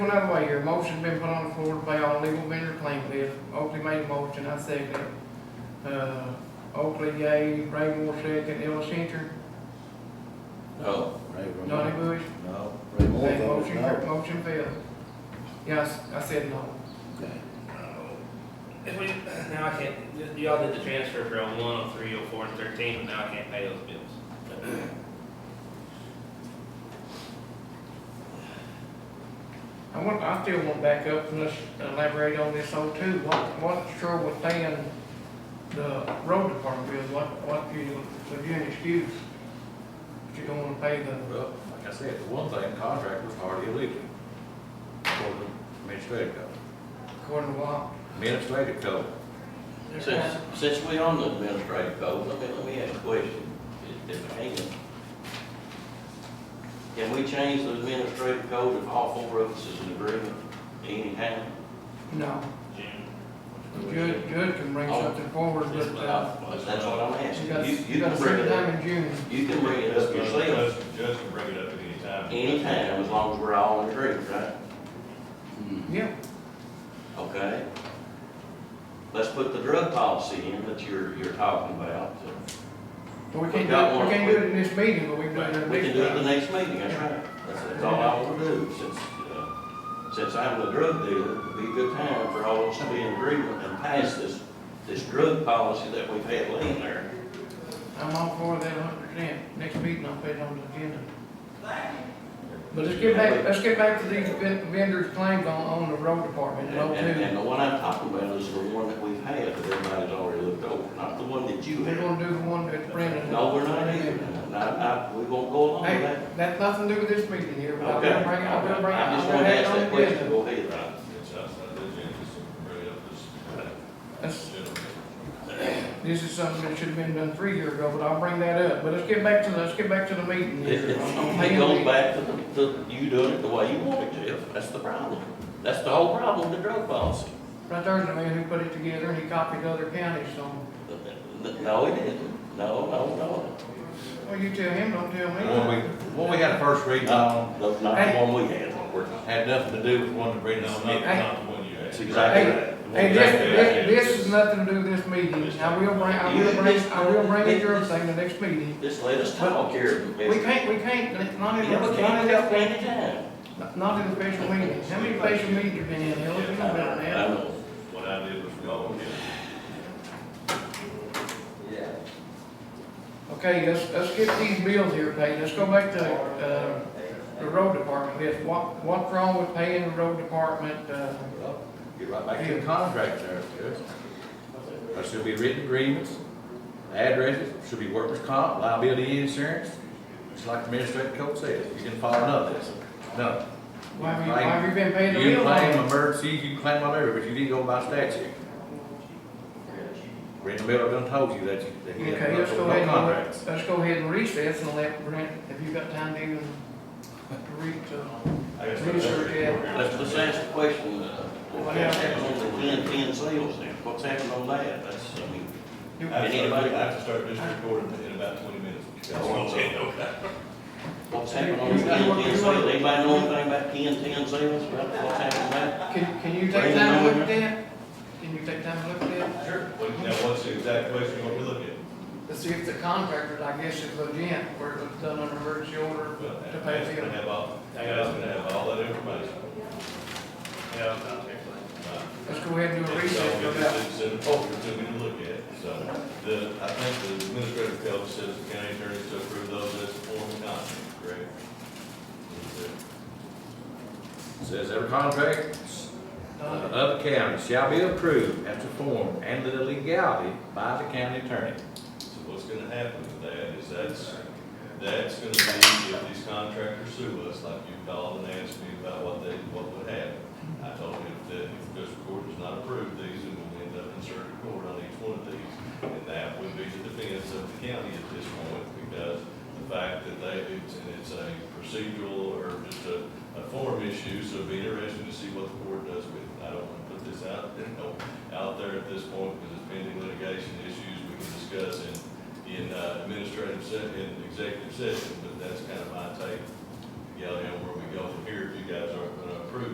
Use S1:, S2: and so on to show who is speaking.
S1: Another way, your motion's been put on the floor to pay all legal vendor claim list. Oakley made a motion, I second it. Uh, Oakley, yay, Ray Moore, second, Ellis Cantor,
S2: Oh,
S3: No.
S4: Ray Moore.
S1: Donnie Bush.
S4: No. Ray Moore
S1: That
S4: voted
S1: motion, your
S4: no.
S1: motion failed. Yes, I said no.
S4: Okay.
S5: If we, now I can't, y'all did the transfer for oh one, oh three, oh four, and thirteen, but now I can't pay those bills.
S1: I want, I still want to back up and let's elaborate on this oh two. What, what's true with paying the road department bills? What, what you, would you excuse? But you don't want to pay the,
S3: Well, like I said, the one thing, contract was already illegal. For the administrative code.
S1: according to what?
S3: Administrative code.
S2: Since, since we on the administrative code, let me, let me ask a question, if, if I can. Can we change the administrative code if all four of us is in agreement anytime?
S1: No,
S5: June,
S1: Judge, Judge can bring
S2: Oh.
S1: something forward,
S2: That's
S1: but,
S2: what
S1: uh,
S2: I- that's what I'm
S1: You
S2: asking.
S1: got,
S2: You,
S1: you
S2: you
S1: got
S2: can
S1: a
S2: bring
S1: certain
S2: it up,
S1: time in June.
S2: you can bring it up yourself
S6: Judge can bring it up at any time.
S2: anytime, as long as we're all in agreement, right?
S3: Hmm.
S1: Yeah,
S2: Okay? Let's put the drug policy in that you're, you're talking about.
S1: but we can't do,
S2: Got
S1: it-
S2: one.
S1: we can't do it in this meeting, but we can do it in the
S2: We
S1: next
S2: can do it the
S1: time.
S2: next meeting, that's right. That's, that's all I want to do, since, uh, since I'm a drug dealer, it'd be a good time for all of us to be in agreement and pass this, this drug policy that we've had laying there.
S1: I'm all for that a hundred percent. Next meeting, I'll put it on the agenda. But let's get back, let's get back to these ven- vendors' claims on, on the road department,
S2: And,
S1: and
S2: and and
S1: two.
S2: the one I'm talking about is the one that we've had, that everybody's already looked over, not the one that you
S1: We're
S2: had.
S1: gonna do the one that's Brendan.
S2: No, we're not either, and I, I, we won't go along with
S1: Hey,
S2: that.
S1: that's nothing to do with this meeting here, but I'm
S2: Okay?
S1: gonna bring it, I'm gonna bring it,
S2: I
S1: I'm
S2: just
S1: gonna
S2: want to ask
S1: have
S2: that
S1: it on the
S2: question,
S1: agenda.
S2: go ahead, Rob.
S6: It's outside the agenda, just bring it up this,
S1: That's-
S6: general.
S1: This is something that should have been done three years ago, but I'll bring that up, but let's get back to, let's get back to the meeting
S2: It,
S1: here.
S2: it only goes back to, the- to you doing it the way you want it to, that's the problem. That's the whole problem with the drug policy.
S1: Right there's the man who put it together and he copied other counties, so,
S2: No, it isn't, no, no, no.
S1: well, you tell him, don't tell
S3: The one
S1: me.
S3: we, what we had a first reading on,
S2: Not, not the one we had,
S3: had nothing to do with one that Brendan
S6: No, not,
S3: submitted.
S6: not the one you had.
S2: that's exactly right.
S1: Hey, this, this, this is nothing to do with this meeting, I will bring, I will bring, I will bring it your thing the next meeting.
S2: Just let us talk here.
S1: We can't, we can't, not in,
S2: Yeah, we
S1: not
S2: can't
S1: in,
S2: help anytime.
S1: not in special meetings, how many special meetings have been in, hell, you know about
S2: I
S1: that?
S2: know.
S6: What I did was wrong, yeah.
S1: Okay, let's, let's get these bills here paid, let's go back to, uh, the road department, list. what, what's wrong with paying the road department, uh,
S3: Well, Get right back to the contract there, Judge. There should be written agreements, addresses, should be workers' comp, liability insurance, just like the administrative code says, you can follow none of this, none.
S1: why have you, why have you been paying the
S3: You
S1: bill?
S3: can claim emergencies, you can claim whatever, but you didn't go by statute. Brenda Miller done told you that you, that he had
S1: Okay, let's go
S3: no
S1: ahead
S3: contracts.
S1: and, let's go ahead and recess and let Brent, have you got time to even read, uh,
S6: I guess that's-
S1: research that?
S2: Let's, let's ask the question, uh, what's happening on the ten, ten sales there? What's happening on that? That's, I mean,
S1: Do-
S6: I have to start- I have to start this recording in about twenty minutes.
S2: That's what I'm saying.
S6: Okay.
S2: what's happening on the ten, ten sales? Anybody know anything about ten, ten sales? What's happening there?
S1: Can, can you take time to look at that? Can you take time to look at that?
S6: Sure. What- Now, what's the exact question you want me to look at?
S1: To see if the contractor, I guess, is legit, where it was done under emergency order
S6: Well,
S1: to
S6: I
S1: pay
S6: asked
S1: the
S6: to
S1: bill.
S6: have all, I asked to have all that information.
S5: yeah, I'm not here.
S6: Uh,
S1: Let's go ahead and do a
S6: And so
S1: recess,
S6: we
S1: go back.
S6: just sent a folder to me to look at, so the, I think the administrative code says the county attorney to approve those as a form of contract, correct?
S3: Says every contract uh, of the county shall be approved as to form and the legality by the county attorney.
S6: So what's gonna happen with that is that's, that's gonna be if these contractors sue us, like you called and asked me about what they, what would happen. I told him that if the district court does not approve these, then we'll end up in circuit court on each one of these. And that would be the defense of the county at this point, because the fact that they, it's, and it's a procedural or just a, a form issue, so it'd be interesting to see what the court does with it. I don't wanna put this out, you know, out there at this point, because it's pending litigation issues we can discuss in, in uh, administrative se- in executive session, but that's kind of my take, Gally, on where we go from here, if you guys aren't gonna approve